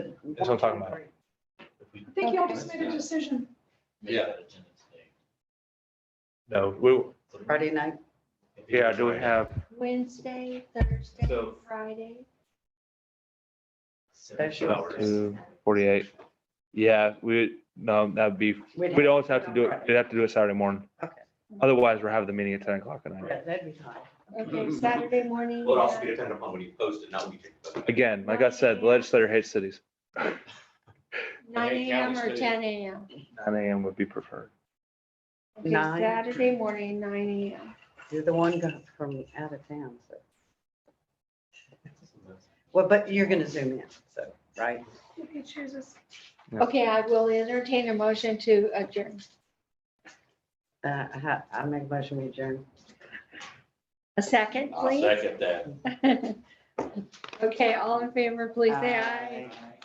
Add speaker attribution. Speaker 1: That's what I'm talking about.
Speaker 2: if
Speaker 3: I think y'all just made a decision.
Speaker 2: we make that agenda today.
Speaker 1: No, we,
Speaker 4: Friday night,
Speaker 2: If we
Speaker 1: yeah,
Speaker 2: can
Speaker 1: do we
Speaker 2: try to
Speaker 1: have,
Speaker 5: Wednesday, Thursday,
Speaker 2: So-
Speaker 5: Friday.
Speaker 2: set two
Speaker 4: Special.
Speaker 2: hours.
Speaker 1: Two forty-eight. Yeah, we, no, that'd be,
Speaker 4: We'd
Speaker 1: we'd always have to do it, we'd have to do it Saturday morning.
Speaker 4: Okay.
Speaker 1: Otherwise, we're having the meeting at ten o'clock at night.
Speaker 4: Yeah, that'd be hot.
Speaker 5: Okay, Saturday morning. uh,
Speaker 6: Well, it also
Speaker 5: yeah.
Speaker 6: be dependent upon when you post it, not when you take the photo.
Speaker 1: Again, like I said, the legislator hates cities.
Speaker 5: Nine
Speaker 6: Hey, Cal,
Speaker 5: AM or
Speaker 6: it's
Speaker 5: ten AM.
Speaker 1: Nine AM would be preferred.
Speaker 5: Okay,
Speaker 4: Nine.
Speaker 5: Saturday morning, nine AM.
Speaker 4: You're the one go- from out of town, so. Well, but you're gonna zoom in, so, right?
Speaker 3: You can choose us.
Speaker 1: Yeah.
Speaker 5: Okay, I will entertain a motion to adjourn.
Speaker 4: Uh, I, ha- I make a motion we adjourn.
Speaker 5: A second,
Speaker 2: I'll
Speaker 5: please?
Speaker 2: second that.
Speaker 5: Okay, all in favor, please say aye.